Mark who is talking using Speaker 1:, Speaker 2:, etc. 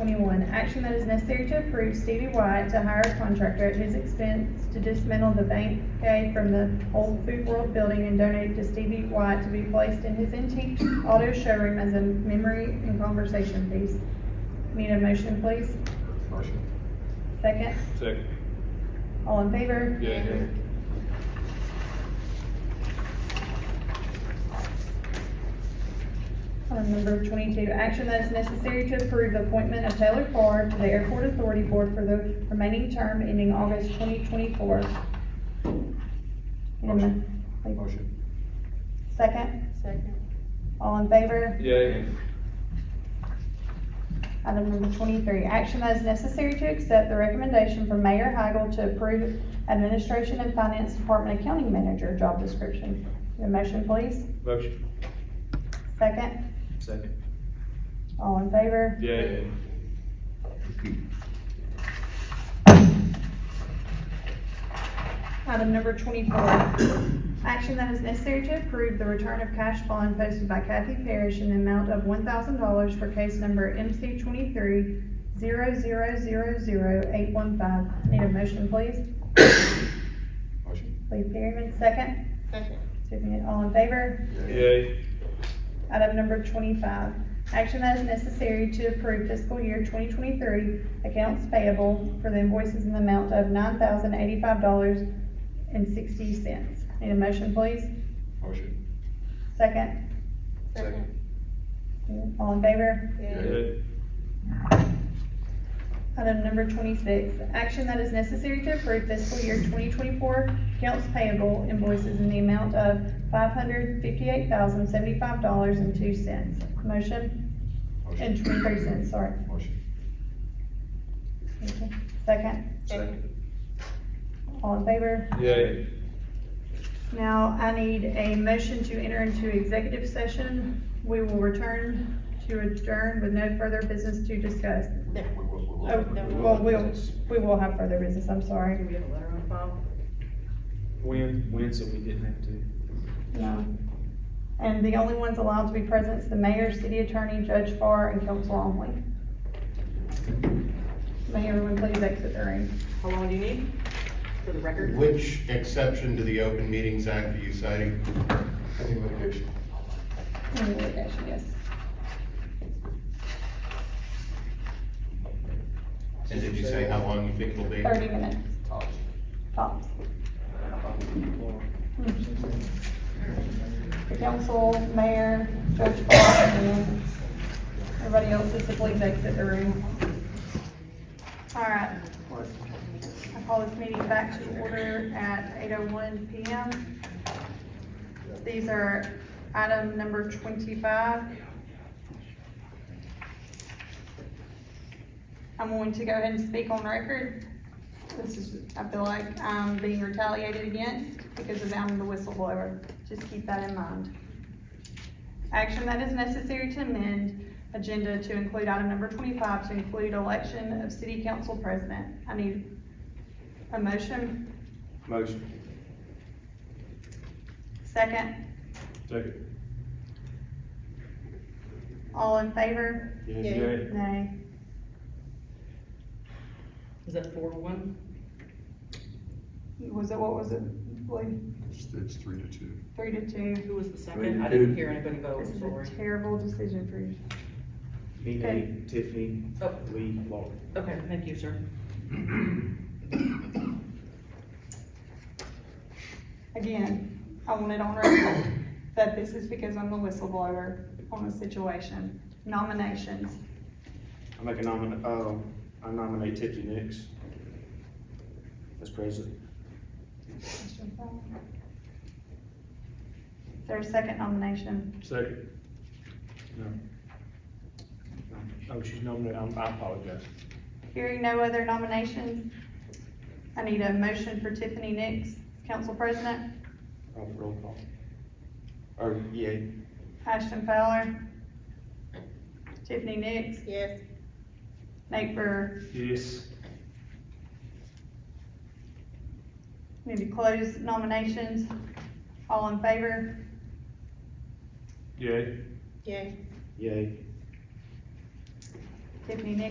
Speaker 1: twenty-one, action that is necessary to approve Stevie White to hire a contractor at his expense to dismantle the bank gate from the old Food World building and donate it to Stevie White to be placed in his antique auto showroom as a memory and conversation piece. Need a motion, please?
Speaker 2: Motion.
Speaker 1: Second?
Speaker 2: Second.
Speaker 1: All in favor?
Speaker 2: Yay.
Speaker 1: Item number twenty-two, action that is necessary to approve the appointment of Taylor Farr to the Airport Authority Board for the remaining term ending August twenty twenty-four.
Speaker 2: Motion. Motion.
Speaker 1: Second,
Speaker 3: Second.
Speaker 1: all in favor?
Speaker 2: Yay.
Speaker 1: Item number twenty-three, action that is necessary to accept the recommendation from Mayor Hagel to approve Administration and Finance Department Accounting Manager job description. Need a motion, please?
Speaker 2: Motion.
Speaker 1: Second,
Speaker 2: Second.
Speaker 1: all in favor?
Speaker 2: Yay.
Speaker 1: Item number twenty-four, action that is necessary to approve the return of cash bond posted by Kathy Parrish in the amount of one thousand dollars for case number MC twenty-three zero zero zero zero eight one five. Need a motion, please?
Speaker 2: Motion.
Speaker 1: Lee Perryman, second.
Speaker 3: Second.
Speaker 1: Tiffany, all in favor?
Speaker 2: Yay.
Speaker 1: Item number twenty-five, action that is necessary to approve fiscal year twenty twenty-three accounts payable for the invoices in the amount of nine thousand eighty-five dollars and sixty cents. Need a motion, please?
Speaker 2: Motion.
Speaker 1: Second.
Speaker 3: Second.
Speaker 1: All in favor?
Speaker 3: Yay.
Speaker 1: Item number twenty-six, action that is necessary to approve fiscal year twenty twenty-four accounts payable invoices in the amount of five hundred fifty-eight thousand seventy-five dollars and two cents. Motion,
Speaker 2: Motion.
Speaker 1: and twenty-three cents, sorry.
Speaker 2: Motion.
Speaker 1: Second,
Speaker 3: Second.
Speaker 1: all in favor?
Speaker 2: Yay.
Speaker 1: Now, I need a motion to enter into executive session. We will return to adjourn with no further business to discuss.
Speaker 3: There.
Speaker 2: We will- we will-
Speaker 1: Oh,
Speaker 2: we will-
Speaker 1: well, we'll, we will have further business, I'm sorry.
Speaker 3: Can we have a letter on file?
Speaker 4: When, when, so we didn't have to.
Speaker 1: No. And the only ones allowed to be present is the mayor, city attorney, Judge Farr, and council only. May everyone please exit the room.
Speaker 3: How long do you need for the record?
Speaker 5: Which exception to the Open Meetings Act are you citing?
Speaker 2: Any litigation?
Speaker 1: Any litigation, yes.
Speaker 5: And did you say how long you think it'll be?
Speaker 1: Thirty minutes, tops. Mm-hmm. The council, mayor, Judge Farr, and then everybody else is to please exit the room. All right. I call this meeting back to order at eight oh one P M. These are item number twenty-five. I'm going to go ahead and speak on record. This is, I feel like I'm being retaliated against because of I'm the whistleblower. Just keep that in mind. Action that is necessary to amend agenda to include item number twenty-five to include election of city council president. I need a motion,
Speaker 4: Motion.
Speaker 1: second,
Speaker 2: Second.
Speaker 1: all in favor?
Speaker 3: Yay.
Speaker 1: Nay.
Speaker 3: Is that four to one?
Speaker 1: Was it, what was it? Like,
Speaker 2: It's, it's three to two.
Speaker 1: three to two.
Speaker 3: Who was the second? I didn't hear anybody vote,
Speaker 1: This is
Speaker 3: sorry.
Speaker 1: a terrible decision for you.
Speaker 4: Me,
Speaker 1: Okay.
Speaker 4: Nate, Tiffany,
Speaker 3: Oh,
Speaker 4: Lee, Laura.
Speaker 3: okay, thank you, sir.
Speaker 1: Again, I want it on record that this is because I'm the whistleblower on the situation. Nominations.
Speaker 4: I make a nomin, um, I nominate Tiffany Nix as president.
Speaker 1: Is there a second nomination?
Speaker 2: Second.
Speaker 4: No. No. Oh, she's nominated, I'm- I apologize.
Speaker 1: Hearing no other nominations, I need a motion for Tiffany Nix, council president,
Speaker 4: Oh, Roll call. Or, Oh, yeah,
Speaker 1: Ashton Fowler, Tiffany Nix,
Speaker 3: Yes.
Speaker 1: Nate Brewer.
Speaker 2: Yes.
Speaker 1: Need to close nominations. All in favor?
Speaker 2: Yay.
Speaker 3: Yay.
Speaker 4: yay.
Speaker 1: Tiffany Nix